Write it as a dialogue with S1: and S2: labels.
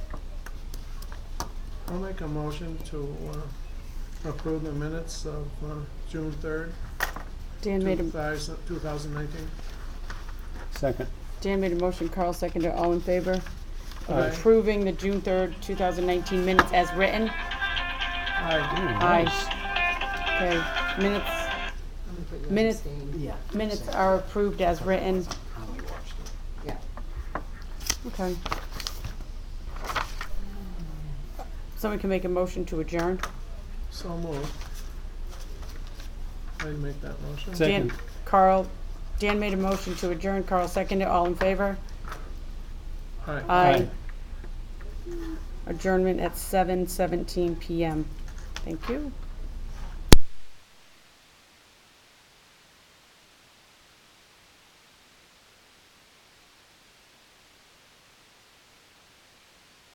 S1: I'll make a motion to uh, approve the minutes of uh, June 3rd,
S2: Dan made a,
S1: 2000 2019.
S3: Second.
S2: Dan made a motion, Carl seconded, all in favor of
S1: Aye.
S2: approving the June third, two thousand nineteen minutes as written?
S1: Aye.
S2: Aye. Okay, minutes,
S4: I'm gonna put you on
S2: Minutes.
S4: abstain.
S5: Yeah.
S2: minutes are approved as written,
S5: How we watched it.
S4: Yeah.
S2: okay. Someone can make a motion to adjourn?
S1: So moved. I'd make that motion.
S3: Sec-
S2: Dan,
S3: Second.
S2: Carl, Dan made a motion to adjourn, Carl seconded, all in favor?
S1: Aye.
S2: Aye. Adjournment at seven seventeen PM. Thank you.